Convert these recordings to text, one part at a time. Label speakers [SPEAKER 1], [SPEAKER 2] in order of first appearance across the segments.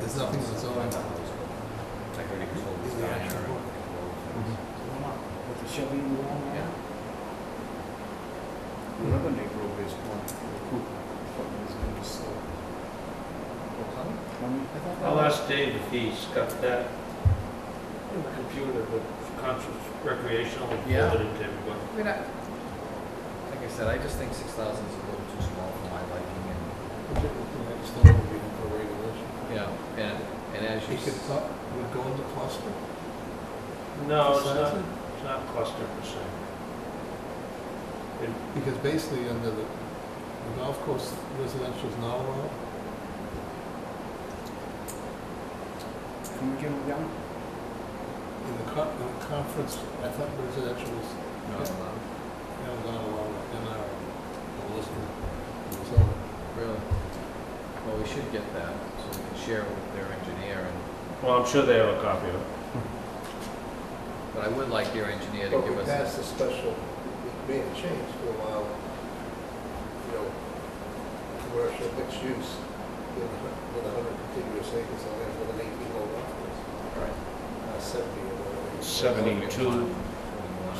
[SPEAKER 1] there's nothing on its own.
[SPEAKER 2] It's like already sold this
[SPEAKER 3] Yeah.
[SPEAKER 2] down there. or-
[SPEAKER 3] With the Chevy in the wall?
[SPEAKER 2] Yeah.
[SPEAKER 3] The other neighborhood is one, the Cooper, fucking is gonna be sold. Twenty, I thought.
[SPEAKER 4] I'll ask Dave if he's got that in the computer, but conscious recreational, and
[SPEAKER 2] Yeah.
[SPEAKER 4] forward it to everyone.
[SPEAKER 2] I mean, I, like I said, I just think six thousand is a little too small for my liking and,
[SPEAKER 1] I just don't know if we can put regulation.
[SPEAKER 2] you know, and, and as you.
[SPEAKER 1] It could,
[SPEAKER 2] s-
[SPEAKER 1] cut- would go into cluster.
[SPEAKER 4] No, it's
[SPEAKER 1] size
[SPEAKER 4] not,
[SPEAKER 1] it,
[SPEAKER 4] it's not cluster per se. It-
[SPEAKER 1] Because basically under the, the golf course residential is not allowed.
[SPEAKER 3] Can we get them down?
[SPEAKER 1] In the con, in the conference, I thought residential was,
[SPEAKER 2] Not allowed,
[SPEAKER 1] you know, not allowed in our, our list. So,
[SPEAKER 2] really. Well, we should get that, so we can share with their engineer and,
[SPEAKER 4] Well, I'm sure they have a copy of it.
[SPEAKER 2] but I would like your engineer to
[SPEAKER 5] But we
[SPEAKER 2] give us.
[SPEAKER 5] passed a special, we made a change to allow, you know, commercial mixed use with a hun- with a hundred contiguous acres on it with an eighteen hole golf course,
[SPEAKER 2] Right.
[SPEAKER 5] uh, seventy or whatever.
[SPEAKER 4] Seventy-two.
[SPEAKER 3] It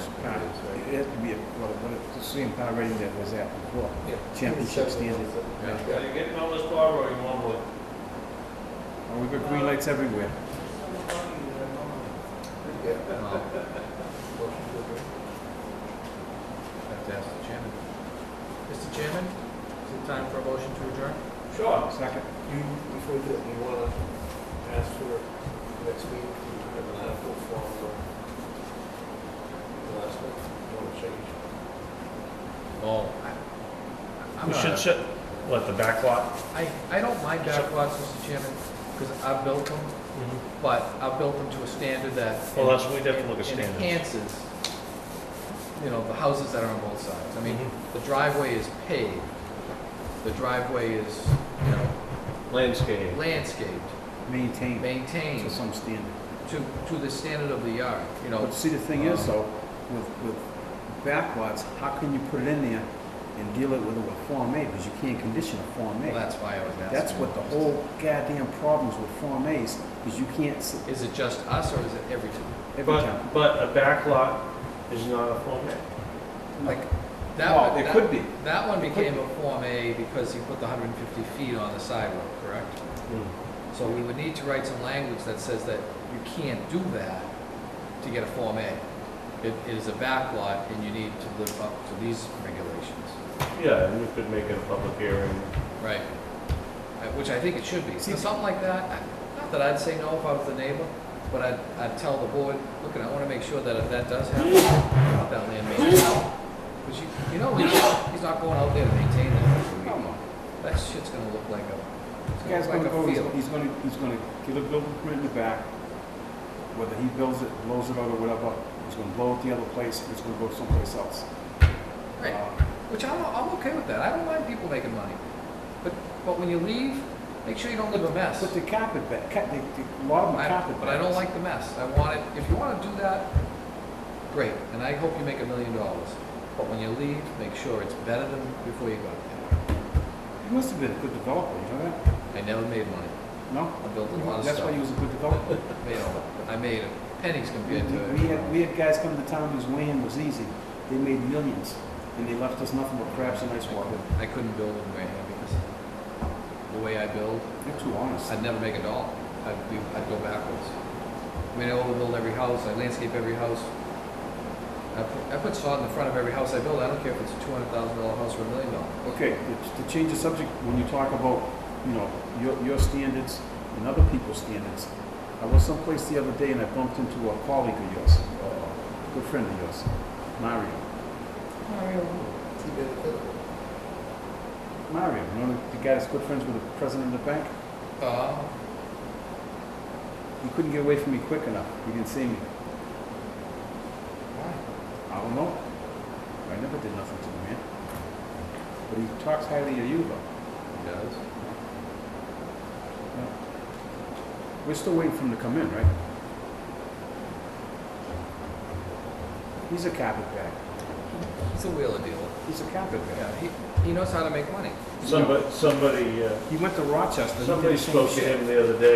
[SPEAKER 3] has to be, a- well, what it- the same power rating that was at before.
[SPEAKER 5] Yeah.
[SPEAKER 3] Championship standard.
[SPEAKER 2] Yeah.
[SPEAKER 4] Are you getting all this borrowing in one wood?
[SPEAKER 3] Oh, we've got green lights everywhere.
[SPEAKER 2] Well, I
[SPEAKER 5] Yeah. Motion to adjourn.
[SPEAKER 2] have to ask the chairman. Mr. Chairman, is it time for a motion to adjourn?
[SPEAKER 4] Sure.
[SPEAKER 3] Second.
[SPEAKER 5] You, before that, you wanna ask for next week, you have an article form for the last one, you wanna change?
[SPEAKER 2] Oh, I, I'm
[SPEAKER 4] We should
[SPEAKER 2] not,
[SPEAKER 4] set, what, the back lot?
[SPEAKER 2] I, I don't mind backlots, Mr. Chairman, because I've built them, but I've built them to a standard that.
[SPEAKER 4] Well, that's, we'd have to look at standards.
[SPEAKER 2] Enhances, you know, the houses that are on both sides. I mean,
[SPEAKER 4] Mhm.
[SPEAKER 2] the driveway is paved, the driveway is, you know,
[SPEAKER 4] Landscape.
[SPEAKER 2] landscaped,
[SPEAKER 4] Mm.
[SPEAKER 3] Maintain
[SPEAKER 2] maintained
[SPEAKER 3] to some standard.
[SPEAKER 2] to, to the standard of the yard, you know.
[SPEAKER 3] But see, the thing is though, with, with backlots, how can you put it in there and deal it with a Form A? Because you can't condition a Form
[SPEAKER 2] Well,
[SPEAKER 3] A.
[SPEAKER 2] that's why I was asking.
[SPEAKER 3] That's what the whole goddamn problems with Form As, is you can't, s-
[SPEAKER 2] Is it just us or is it every town?
[SPEAKER 3] every time.
[SPEAKER 4] But, but a back lot is not a Form A.
[SPEAKER 2] Like, that
[SPEAKER 3] Well,
[SPEAKER 2] one,
[SPEAKER 3] it
[SPEAKER 2] that-
[SPEAKER 3] could be.
[SPEAKER 2] That one
[SPEAKER 3] It could
[SPEAKER 2] became a Form A because he put the hundred and fifty feet on the sidewalk, correct? So we would need to write some language that says that you can't do that to get a Form A. It it is a backlot and you need to live up to these regulations,
[SPEAKER 4] Yeah, and we could make it a public hearing.
[SPEAKER 2] right? Uh, Which I think it should be. So something like that, I- not that I'd say no if I was the neighbor, but I'd, I'd tell the board, look, I wanna make sure that if that does happen, I want that land maintenance. Cause you, you know, he's he's not going out there to maintain that. every week.
[SPEAKER 3] Come on.
[SPEAKER 2] That shit's gonna look like a, it's
[SPEAKER 3] This
[SPEAKER 2] gonna
[SPEAKER 3] guy's
[SPEAKER 2] look
[SPEAKER 3] gonna
[SPEAKER 2] like
[SPEAKER 3] go,
[SPEAKER 2] a
[SPEAKER 3] he's
[SPEAKER 2] field.
[SPEAKER 3] he's gonna, he's gonna get a building permit in the back, whether he builds it, blows it out or whatever, he's gonna blow it the other place, it's gonna go someplace else.
[SPEAKER 2] Right,
[SPEAKER 3] Uh,
[SPEAKER 2] which I'm, I'm okay with that. I don't mind people making money. But, but when you leave, make sure you don't leave a mess.
[SPEAKER 3] But the carpet bag, ca- the, the, a lot of them are
[SPEAKER 2] I-
[SPEAKER 3] carpet
[SPEAKER 2] But I don't
[SPEAKER 3] bags.
[SPEAKER 2] like the mess. I want it, if you wanna do that, great, and I hope you make a million dollars. But when you leave, make sure it's better than before you got there.
[SPEAKER 3] He must have been a good developer, you know that?
[SPEAKER 2] I never made money.
[SPEAKER 3] No?
[SPEAKER 2] I built a lot of
[SPEAKER 3] That's why he
[SPEAKER 2] stuff.
[SPEAKER 3] was a good developer.
[SPEAKER 2] Made all, I made pennies
[SPEAKER 3] We
[SPEAKER 2] compared to.
[SPEAKER 3] we had, we had guys come to town whose land was easy, they made millions, and they left us nothing but crabs and ice water.
[SPEAKER 2] I couldn't build in Wareham because the way I build,
[SPEAKER 3] They're too honest.
[SPEAKER 2] I'd never make a dollar. I'd be, I'd go backwards. I mean, I overbuild every house, I landscape every house. I put, I put sod in the front of every house I build, I don't care if it's a two hundred thousand dollar house or a million dollar.
[SPEAKER 3] Okay, to- to change the subject, when you talk about, you know, your, your standards and other people's standards, I was someplace the other day and I bumped into a colleague of yours, a good friend of yours,
[SPEAKER 5] He
[SPEAKER 3] Mario.
[SPEAKER 5] made a clip.
[SPEAKER 3] Mario, you know, the guy that's good friends with the president of the bank?
[SPEAKER 2] Uh,
[SPEAKER 3] He couldn't get away from me quick enough. He didn't see me. I don't know. I never did nothing to the man. But he talks highly of you, though.
[SPEAKER 2] he does.
[SPEAKER 3] We're still waiting for him to come in, right? He's a carpetbag.
[SPEAKER 2] He's a wheeler dealer.
[SPEAKER 3] He's a carpetbag.
[SPEAKER 2] Yeah, he, he knows how to make money.
[SPEAKER 4] Somebody, somebody, uh,
[SPEAKER 3] He went to Rochester. and he did
[SPEAKER 4] somebody
[SPEAKER 3] the same
[SPEAKER 4] spoke to
[SPEAKER 3] shit.
[SPEAKER 4] him the other day